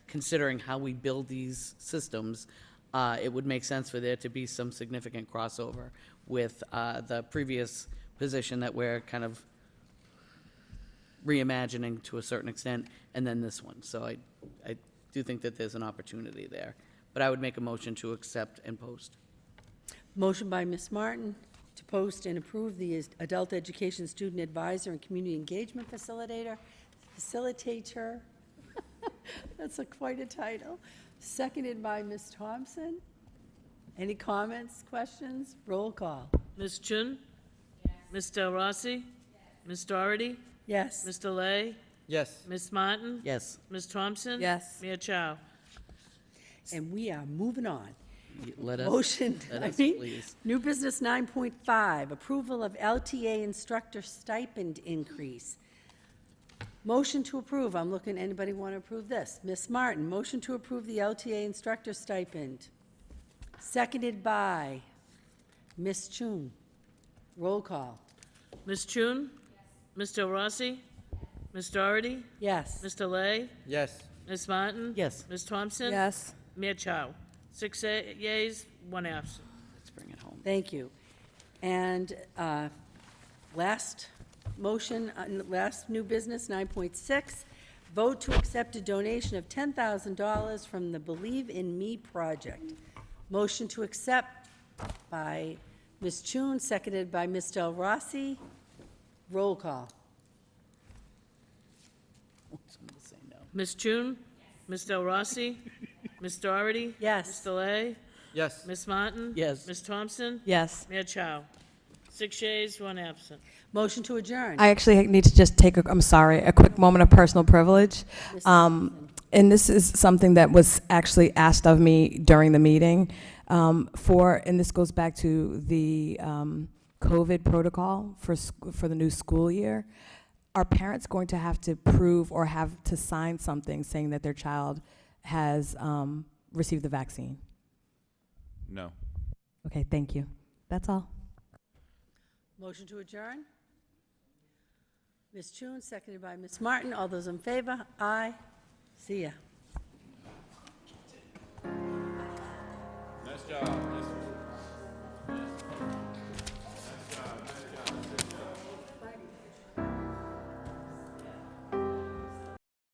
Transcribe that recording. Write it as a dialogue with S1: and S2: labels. S1: considering how we build these systems, uh, it would make sense for there to be some significant crossover with uh, the previous position that we're kind of reimagining to a certain extent, and then this one. So I, I do think that there's an opportunity there. But I would make a motion to accept and post.
S2: Motion by Ms. Martin to post and approve the is- Adult Education Student Advisor and Community Engagement Facilitator, Facilitator. That's a quite a title. Seconded by Ms. Thompson. Any comments, questions? Roll call.
S3: Ms. Chun? Ms. Del Rossi? Ms. Doherty?
S2: Yes.
S3: Ms. Delay?
S4: Yes.
S3: Ms. Martin?
S1: Yes.
S3: Ms. Thompson?
S5: Yes.
S3: Mia Chow?
S2: And we are moving on.
S1: Let us.
S2: Motion,
S1: Let
S2: I
S1: us,
S2: mean,
S1: please.
S2: new business 9.5, approval of LTA instructor stipend increase. Motion to approve, I'm looking, anybody want to approve this? Miss Martin, motion to approve the LTA instructor stipend. Seconded by Miss Chun. Roll call,
S3: Ms. Chun? Ms. Del Rossi? Ms. Doherty?
S2: yes.
S3: Ms. Delay?
S4: Yes.
S3: Ms. Martin?
S1: Yes.
S3: Ms. Thompson?
S5: Yes.
S3: Mia Chow? Six a- yeas, one absent.
S1: Let's bring it home.
S2: Thank you. And uh, last motion, uh, n- last new business, 9.6, vote to accept a donation of $10,000 from the Believe in Me project. Motion to accept by Ms. Chun, seconded by Ms. Del Rossi. Roll call.
S1: Someone say no.
S3: Ms. Chun? Ms. Del Rossi? Ms. Doherty?
S2: Yes.
S3: Ms. Delay?
S4: Yes.
S3: Ms. Martin?
S1: Yes.
S3: Ms. Thompson?
S5: Yes.
S3: Mia Chow? Six yeas, one absent.
S2: Motion to adjourn.
S5: I actually need to just take, a, I'm sorry, a quick moment of personal privilege. Um, and this is something that was actually asked of me during the meeting um, for, and this goes back to the um, COVID protocol for, sc- for the new school year. Are parents going to have to prove or have to sign something saying that their child has um, received the vaccine?
S4: No.
S5: Okay, thank you. That's all.
S2: Motion to adjourn. Ms. Chun, seconded by Ms. Martin. All those in favor? Aye. See ya.